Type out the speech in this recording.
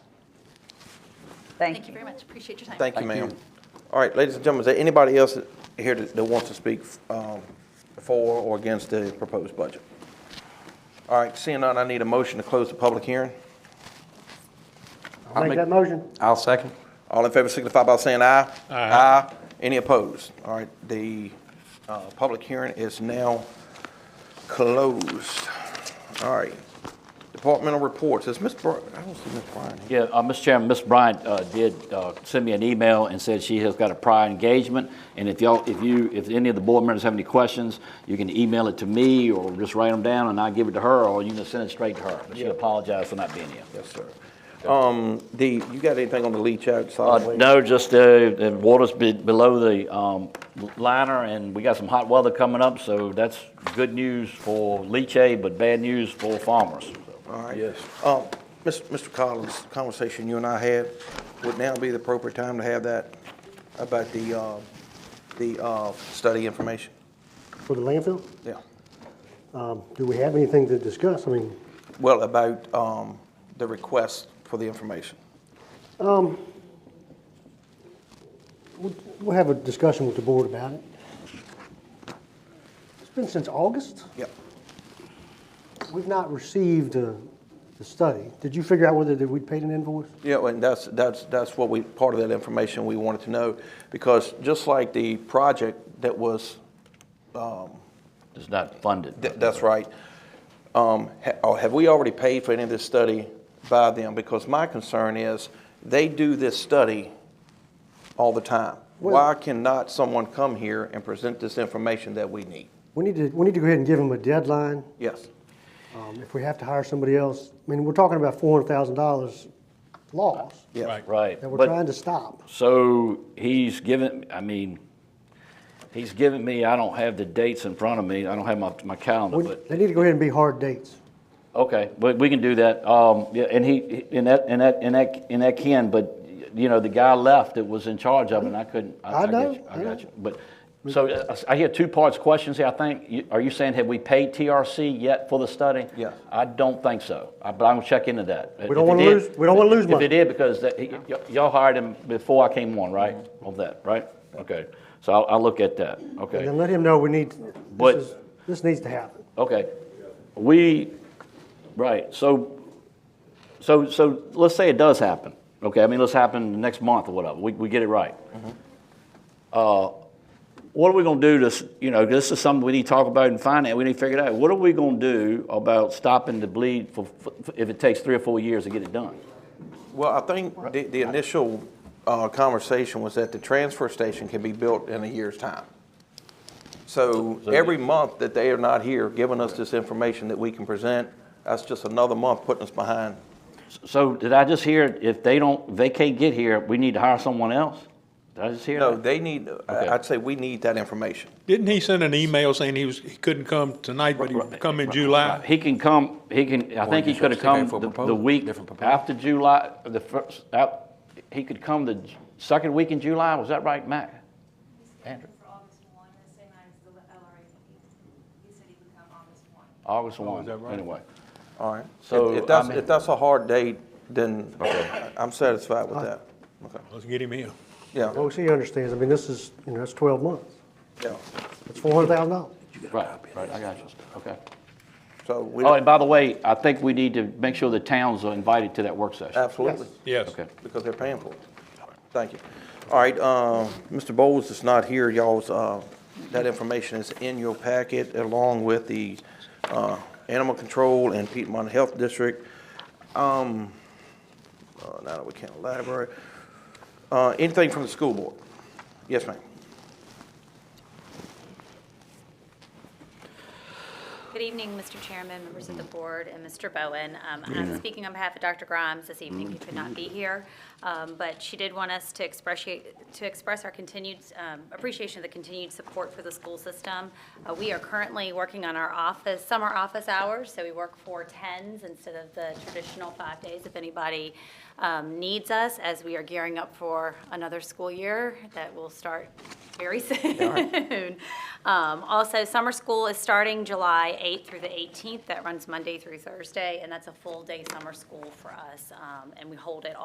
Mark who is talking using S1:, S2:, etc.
S1: Thank
S2: Thank you
S1: you.
S2: very much. Appreciate your time.
S3: Thank you, ma'am. All right, ladies and gentlemen, is there anybody else here that that wants to speak um, for or against the proposed budget? All right, seeing none, I need a motion to close the public hearing.
S4: Make that motion.
S5: I'll second.
S3: All in favor signify by saying aye. Aye. Any opposed? All right, the uh, public hearing is now closed. All right, departmental reports. Is Ms. Bryant, I don't see Ms. Bryant here.
S6: Yeah, uh, Mr. Chairman, Ms. Bryant uh, did uh, send me an email and said she has got a prior engagement, and if y'all, if you, if any of the board members have any questions, you can email it to me, or just write them down, and I'll give it to her, or you can send it straight to her, but she apologized for not being here.
S3: Yes, sir. Um, The, you got anything on the leach out solid
S6: Uh,
S3: waste?
S6: No, just uh, the water's be- below the um, liner, and we got some hot weather coming up, so that's good news for Leachade, but bad news for farmers. so.
S3: All right. Yes. Um, Mis- Mr. Collins, conversation you and I had, would now be the appropriate time to have that about the, uh, the, uh, study information?
S4: For the landfill,
S3: Yeah.
S4: um, do we have anything to discuss? I mean,
S3: Well, about, um, the request for the information.
S4: we'll have a discussion with the board about it. It's been since August.
S3: Yep.
S4: We've not received uh, the study. Did you figure out whether that we paid an invoice?
S3: Yeah, and that's, that's, that's what we, part of that information we wanted to know, because just like the project that was,
S6: It's not funded.
S3: Th- That's right. Um, ha- or Have we already paid for any of this study by them? Because my concern is, they do this study all the time. Why cannot someone come here and present this information that we need?
S4: We need to, we need to go ahead and give them a deadline.
S3: Yes,
S4: Um, If we have to hire somebody else, I mean, we're talking about $400,000 loss
S3: yes.
S6: Right.
S4: that we're
S6: but-
S4: trying to stop.
S6: So he's given, I mean, he's given me, I don't have the dates in front of me, I don't have my, my calendar,
S4: We-
S6: but,
S4: They need to go ahead and be hard dates.
S6: okay, but we can do that. Um, yeah, and he, and that, and that, and that, and that can, but, you know, the guy left that was in charge of it, and I couldn't.
S4: I
S6: got
S4: know,
S6: you,
S4: I
S6: I
S4: know.
S6: got you, but, so uh, I hear two parts questions here, I think. You- Are you saying, have we paid TRC yet for the study?
S3: Yes.
S6: I don't think so, I- but I'm gonna check into that.
S4: We don't wanna lose- we don't wanna lose money.
S6: If it did, because that, he- y- y'all hired him before I came on, right?
S4: Mm-hmm.
S6: Of that, right? Okay, so I'll, I'll look at that,
S4: And
S6: okay,
S4: then let him know we need, this
S6: But-
S4: is, this needs to happen.
S6: okay. We, right, so, so, so let's say it does happen, okay? I mean, let's happen next month or whatever, we, we get it right. Uh, what are we going to do to, s- you know, this is something we need to talk about in finance. We need to figure it out. What are we going to do about stopping the bleed for, for, if it takes three or four years to get it done?
S3: Well, I think the, the initial uh, conversation was that the transfer station can be built in a year's time. So every month that they are not here giving us this information that we can present, that's just another month putting us behind.
S6: So did I just hear if they don't, they can't get here, we need to hire someone else? Did I just hear
S3: No,
S6: that?
S3: they need, I-
S6: Okay.
S3: I'd say we need that information.
S7: Didn't he send an email saying he was, he couldn't come tonight, but he would come in July?
S6: He can come, he can, I think he
S5: just
S6: could have
S5: stick in
S6: come
S5: for a
S6: the, the
S5: proposal,
S6: week
S5: different proposal.
S6: after July, the first, out, he could come the j- second week in July, was that right, Matt? Andrew.
S8: For August one, the same night as the LRA meeting. He said he would come August one.
S6: August
S5: Oh,
S6: one, anyway.
S3: All right.
S6: So,
S3: If- If that's,
S6: I mean-
S3: if that's a hard date, then I'm satisfied with that. Okay.
S7: Let's get him in.
S3: Yeah,
S4: OC understands, I mean, this is, you know, that's 12 months.
S3: yeah.
S4: It's $400,000.
S6: Right, right, I got you, okay.
S3: So we,
S6: Oh, and by the way, I think we need to make sure the towns are invited to that work session.
S3: absolutely,
S7: Yes.
S6: Okay.
S3: because they're paying for it. Thank you. All right, um, Mr. Bowles is not here. Y'all's, uh, that information is in your packet along with the uh, Animal Control and Piedmont Health District. Um, uh, Now that we can't elaborate. Uh, Anything from the school board? Yes, ma'am.
S8: Good evening, Mr. Chairman, members of the board, and Mr. Bowen. Um, I'm speaking on behalf of Dr. Grimes this evening, who could not be here, um, but she did want us to express, to express our continued um, appreciation of the continued support for the school system. Uh, We are currently working on our office, summer office hours, so we work four tens instead of the traditional five days if anybody um, needs us, as we are gearing up for another school year that will start very soon. Um, Also, summer school is starting July 8th through the 18th. That runs Monday through Thursday, and that's a full-day summer school for us, um, and we hold it